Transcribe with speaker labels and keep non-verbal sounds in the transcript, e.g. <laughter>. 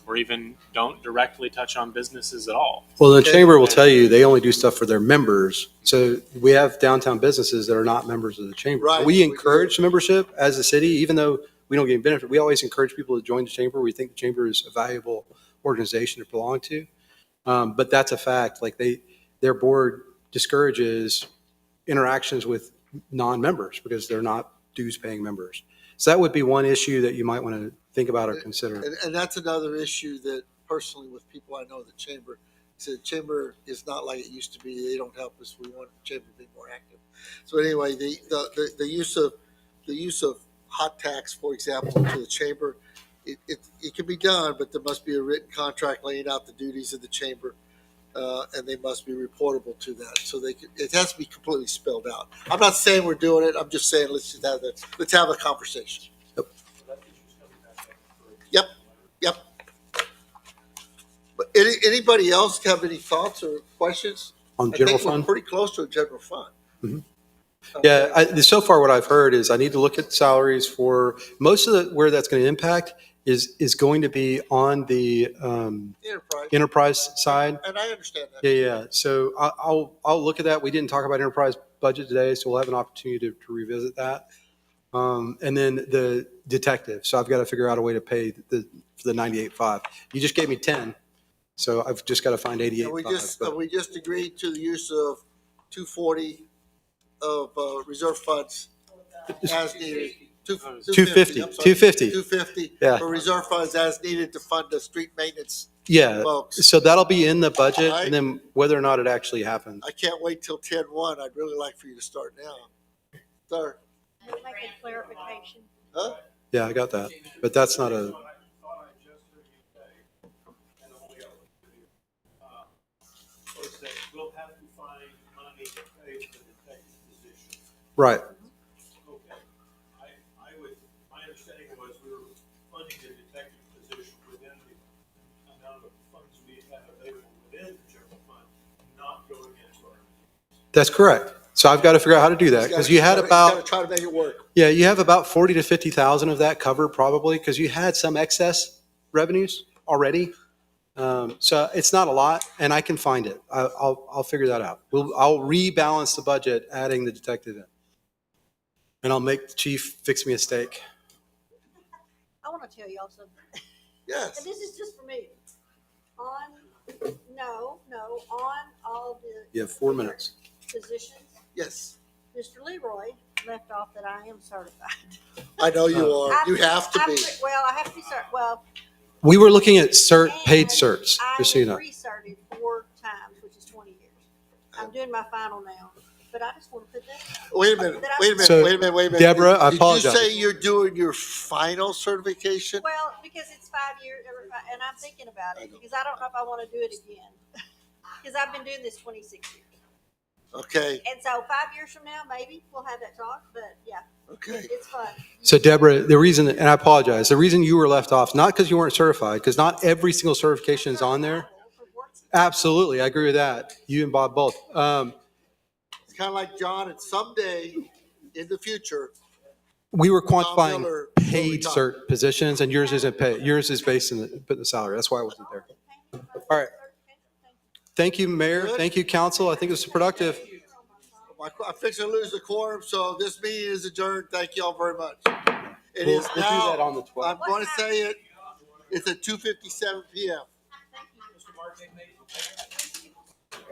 Speaker 1: or even don't directly touch on businesses at all.
Speaker 2: Well, the chamber will tell you, they only do stuff for their members. So we have downtown businesses that are not members of the chamber.
Speaker 3: Right.
Speaker 2: We encourage membership as a city, even though we don't get benefit. We always encourage people to join the chamber. We think the chamber is a valuable organization to belong to. Um, but that's a fact. Like they, their board discourages interactions with non-members because they're not dues-paying members. So that would be one issue that you might want to think about or consider.
Speaker 3: And, and that's another issue that personally with people I know in the chamber, so the chamber is not like it used to be. They don't help us. We want the chamber to be more active. So anyway, the, the, the, the use of, the use of hot tax, for example, to the chamber, it, it, it can be done, but there must be a written contract laying out the duties of the chamber. Uh, and they must be reportable to that. So they could, it has to be completely spelled out. I'm not saying we're doing it. I'm just saying, let's just have the, let's have a conversation. Yep. But any, anybody else have any thoughts or questions?
Speaker 2: On
Speaker 3: I
Speaker 2: general
Speaker 3: think we're
Speaker 2: fund?
Speaker 3: Pretty close to a general fund.
Speaker 2: Mhm. Yeah, I, so far what I've heard is I need to look at salaries for most of the, where that's going to impact is, is going to be on the um,
Speaker 3: Enterprise,
Speaker 2: enterprise side.
Speaker 3: and I understand that.
Speaker 2: Yeah, yeah. So I, I'll, I'll look at that. We didn't talk about enterprise budget today, so we'll have an opportunity to, to revisit that. Um, and then the detective. So I've got to figure out a way to pay the, for the 98.5. You just gave me 10. So I've just got to find
Speaker 3: And we just,
Speaker 2: 88.5.
Speaker 3: and
Speaker 2: but-
Speaker 3: we just agreed to the use of two forty of, uh, reserve funds as needed. Two-
Speaker 2: 250,
Speaker 3: I'm sorry.
Speaker 2: 250.
Speaker 3: Two fifty.
Speaker 2: Yeah.
Speaker 3: For reserve funds as needed to fund the street maintenance
Speaker 2: Yeah.
Speaker 3: folks.
Speaker 2: So that'll be in the budget
Speaker 3: Alright.
Speaker 2: and then whether or not it actually happens.
Speaker 3: I can't wait till ten one. I'd really like for you to start now. Sir,
Speaker 4: Can I make a clarification?
Speaker 3: huh?
Speaker 2: Yeah, I got that. But that's not a,
Speaker 5: was that we'll have to find money to pay for the detective position.
Speaker 2: right.
Speaker 5: Okay. I, I would, my understanding was we were funding the detective position within the amount of funds we have available within the general fund, not going into our.
Speaker 2: That's correct. So I've got to figure out how to do that because you had
Speaker 3: He's gotta- he's gotta
Speaker 2: about,
Speaker 3: Try to make it work.
Speaker 2: yeah, you have about 40 to 50,000 of that covered probably because you had some excess revenues already. Um, So it's not a lot and I can find it. I- I'll, I'll figure that out. We'll, I'll rebalance the budget, adding the detective in. And I'll make the chief fix me a steak.
Speaker 4: I want to tell y'all something.
Speaker 3: Yes.
Speaker 4: And this is just for me. On, no, no, on all the.
Speaker 2: You have four minutes.
Speaker 4: Positions,
Speaker 3: Yes,
Speaker 4: Mr. Leroy left off that I am certified.
Speaker 3: I know you
Speaker 2: Oh.
Speaker 3: are.
Speaker 4: I'm-
Speaker 3: You have to
Speaker 4: I'm
Speaker 3: be.
Speaker 4: re- Well, I have to be cert, well.
Speaker 2: We were looking at cert, paid
Speaker 4: and
Speaker 2: certs, just so you know.
Speaker 4: I recerted four times, which is twenty years. I'm doing my final now, but I just want to put that,
Speaker 3: Wait a minute, wait a
Speaker 2: So,
Speaker 3: minute, wait a minute, wait a minute.
Speaker 2: Deborah, I apologize.
Speaker 3: Did you say you're doing your final certification?
Speaker 4: well, because it's five years, and I'm thinking about
Speaker 3: I
Speaker 4: it,
Speaker 3: know.
Speaker 4: because I don't know if I want to do it again. <laughs> Because I've been doing this twenty-six years.
Speaker 3: Okay,
Speaker 4: And so five years from now, maybe we'll have that talk, but yeah,
Speaker 3: okay.
Speaker 4: it's fun.
Speaker 2: So Deborah, the reason, and I apologize, the reason you were left off, not because you weren't certified, because not every single certification is on there. Absolutely, I agree with that. You and Bob both. Um,
Speaker 3: It's kind of like John, and someday in the future,
Speaker 2: we were
Speaker 3: Tom
Speaker 2: quantifying
Speaker 3: Miller,
Speaker 2: paid cert positions and yours isn't paid. Yours is based in the, put in the salary. That's why I wasn't there. All right. Thank you, Mayor. Thank you, Council. I think it was productive.
Speaker 3: my- I'm fixing to lose the quorum, so this meeting is adjourned. Thank you all very much. It is
Speaker 2: We'll- we'll do that on the
Speaker 3: now,
Speaker 2: 12th.
Speaker 3: I'm going to say it, it's at two fifty-seven PM.
Speaker 5: Mr. Martin, may- may I